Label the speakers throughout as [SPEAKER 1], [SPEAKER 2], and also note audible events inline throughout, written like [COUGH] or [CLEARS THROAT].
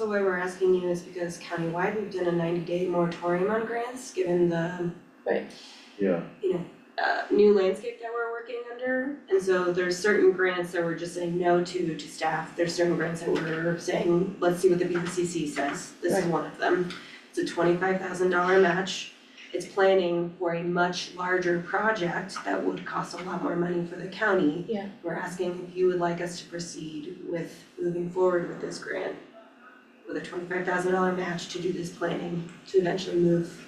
[SPEAKER 1] So why we're asking you is because countywide, we've done a ninety day moratorium on grants, given the
[SPEAKER 2] Yeah,
[SPEAKER 1] uh new landscape that we're working under. And so there's certain grants that we're just saying no to to staff, there's certain grants that we're saying, let's see what the BPCC says, this is one of them. It's a twenty-five thousand dollar match, it's planning for a much larger project that would cost a lot more money for the county.
[SPEAKER 3] Yeah.
[SPEAKER 1] We're asking if you would like us to proceed with moving forward with this grant with a twenty-five thousand dollar match to do this planning, to eventually move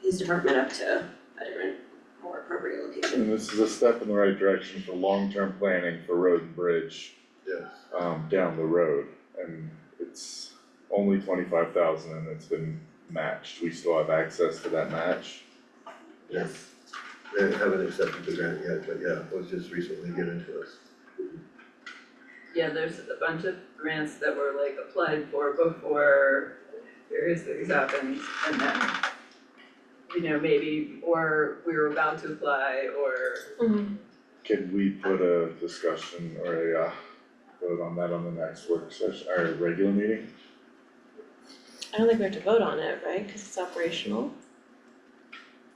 [SPEAKER 1] his department up to a different, more appropriate location.
[SPEAKER 2] and this is a step in the right direction for long-term planning for road and bridge.
[SPEAKER 4] Yes.
[SPEAKER 2] Um, down the road, and it's only twenty-five thousand and it's been matched, we still have access to that match.
[SPEAKER 4] Yes. They haven't accepted the grant yet, but yeah, it was just recently given to us.
[SPEAKER 5] Yeah, there's a bunch of grants that were like applied for before various things happened and then you know, maybe, or we were about to apply or
[SPEAKER 3] Mm-hmm.
[SPEAKER 2] Can we put a discussion or a, uh, vote on that on the next work session, or regular meeting?
[SPEAKER 3] I don't think we have to vote on it, right, cause it's operational?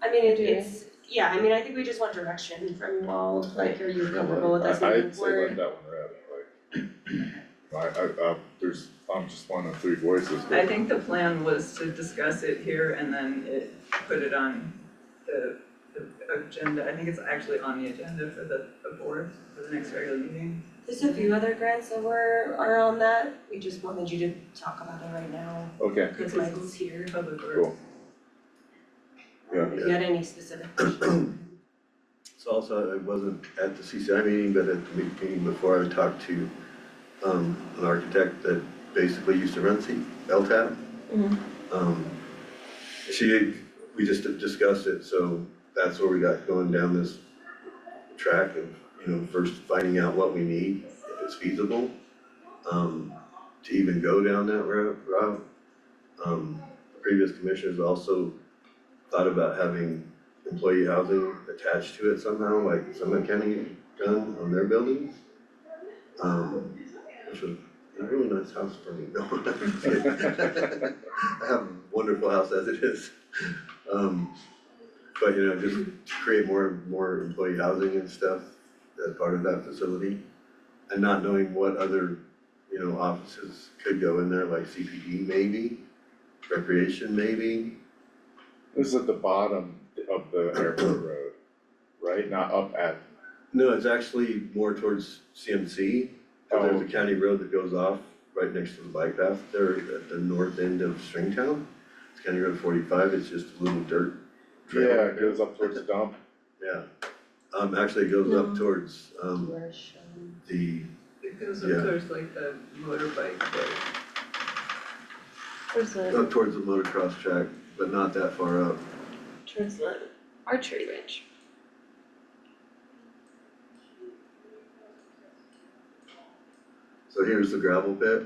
[SPEAKER 1] I mean, it-
[SPEAKER 3] Do you?
[SPEAKER 1] it's, yeah, I mean, I think we just want direction from you all, like, are you comfortable with us
[SPEAKER 2] I-
[SPEAKER 1] moving
[SPEAKER 2] I'd say let
[SPEAKER 1] forward?
[SPEAKER 2] that one rest, like. [CLEARS THROAT] I, I, uh, there's, I'm just one of three voices,
[SPEAKER 5] I
[SPEAKER 2] but
[SPEAKER 5] think the plan was to discuss it here and then it, put it on the the agenda, I think it's actually on the agenda for the the board for the next regular meeting.
[SPEAKER 1] There's a few other grants that were, are on that, we just wanted you to talk about it right now,
[SPEAKER 2] okay,
[SPEAKER 1] because Michael's here,
[SPEAKER 5] Public Works.
[SPEAKER 2] Cool. Yeah.
[SPEAKER 1] if you had any specific questions.
[SPEAKER 4] So also, I wasn't at the CCI meeting, but at the me- meeting before, I talked to um an architect that basically used to run C, LTAP.
[SPEAKER 3] Mhm.
[SPEAKER 4] Um, she, we just discussed it, so that's where we got going down this track of, you know, first finding out what we need, if it's feasible. Um, to even go down that ro- route. Um, previous commissioners also thought about having employee housing attached to it somehow, like Summit County done on their buildings. Um, which was a really nice house for me, no.
[SPEAKER 2] [LAUGHS]
[SPEAKER 4] I have a um, wonderful house as it is. Um, but you know, just to create more, more employee housing and stuff as part of that facility. And not knowing what other, you know, offices could go in there, like CPD maybe, recreation maybe.
[SPEAKER 2] this is at the bottom of the airport road, right, not up at
[SPEAKER 4] No, it's actually more towards CMC.
[SPEAKER 2] Oh.
[SPEAKER 4] There's a county road that goes off right next to the bike path there at the north end of Stringtown. It's County Road forty-five, it's just a little dirt trail.
[SPEAKER 2] Yeah, it goes up towards the dump.
[SPEAKER 4] Yeah. Um, actually, it goes up
[SPEAKER 3] No.
[SPEAKER 4] towards, um,
[SPEAKER 1] Where Sean-
[SPEAKER 4] the,
[SPEAKER 5] It goes
[SPEAKER 4] Yeah.
[SPEAKER 5] up towards like the motorbike there.
[SPEAKER 3] Towards the,
[SPEAKER 4] up towards the motocross track, but not that far up.
[SPEAKER 3] towards the archery range.
[SPEAKER 4] So here's the gravel pit.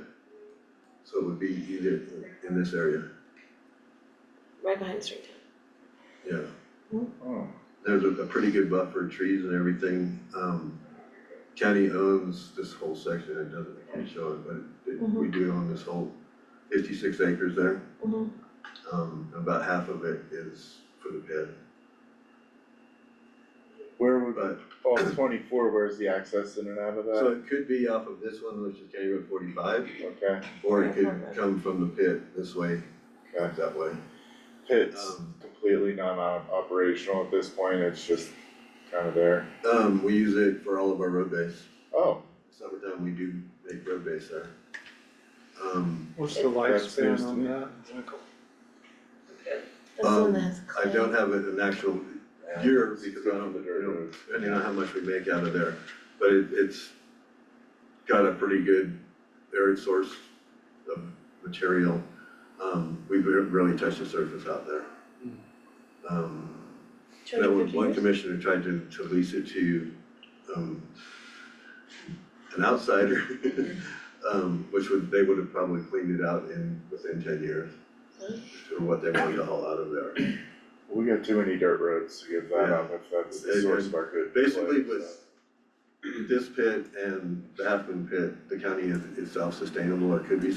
[SPEAKER 4] So it would be either in this area,
[SPEAKER 3] right behind
[SPEAKER 4] Um,
[SPEAKER 3] Stringtown.
[SPEAKER 4] yeah.
[SPEAKER 2] Oh,
[SPEAKER 4] there's a, a pretty good buffer, trees and everything, um, county owns this whole section, it doesn't, I can't show it, but it, we do own this whole fifty-six acres there.
[SPEAKER 3] Mhm.
[SPEAKER 4] Um, about half of it is for the pit,
[SPEAKER 2] where would,
[SPEAKER 4] but,
[SPEAKER 2] oh, twenty-four, where's the access in and out of
[SPEAKER 4] so
[SPEAKER 2] that?
[SPEAKER 4] it could be off of this one, which is County Road forty-five,
[SPEAKER 2] Okay,
[SPEAKER 4] or it could come from the pit this way,
[SPEAKER 2] Okay.
[SPEAKER 4] that way.
[SPEAKER 2] it's
[SPEAKER 4] Um,
[SPEAKER 2] completely non-operational at this point, it's just kind of there.
[SPEAKER 4] Um, we use it for all of our road base,
[SPEAKER 2] Oh,
[SPEAKER 4] summertime, we do make road base there. Um,
[SPEAKER 6] What's the
[SPEAKER 2] That- that's news to
[SPEAKER 6] lifespan on
[SPEAKER 2] me.
[SPEAKER 6] that, Michael?
[SPEAKER 3] That's the one
[SPEAKER 4] Um,
[SPEAKER 3] that has
[SPEAKER 4] I
[SPEAKER 3] clay.
[SPEAKER 4] don't have an an actual year because I don't,
[SPEAKER 2] The
[SPEAKER 4] you
[SPEAKER 2] dirt
[SPEAKER 4] know,
[SPEAKER 2] roads.
[SPEAKER 4] depending on how much we make out of there, but it, it's got a pretty good varied source of material. Um, we've re- really touched the surface out there. Um, there was
[SPEAKER 3] 250
[SPEAKER 4] one
[SPEAKER 3] years?
[SPEAKER 4] commissioner tried to, to lease it to, um, an outsider, [LAUGHS] um, which would, they would have probably cleaned it out in, within ten years.
[SPEAKER 3] Huh?
[SPEAKER 4] Or what they wanted to haul out of there.
[SPEAKER 2] We got too many dirt roads to give that
[SPEAKER 4] Yeah.
[SPEAKER 2] up if that's the
[SPEAKER 4] And-
[SPEAKER 2] source
[SPEAKER 4] and
[SPEAKER 2] of our good.
[SPEAKER 4] Basically
[SPEAKER 2] place,
[SPEAKER 4] with this pit and the Halfman pit, the county is is self-sustainable or could be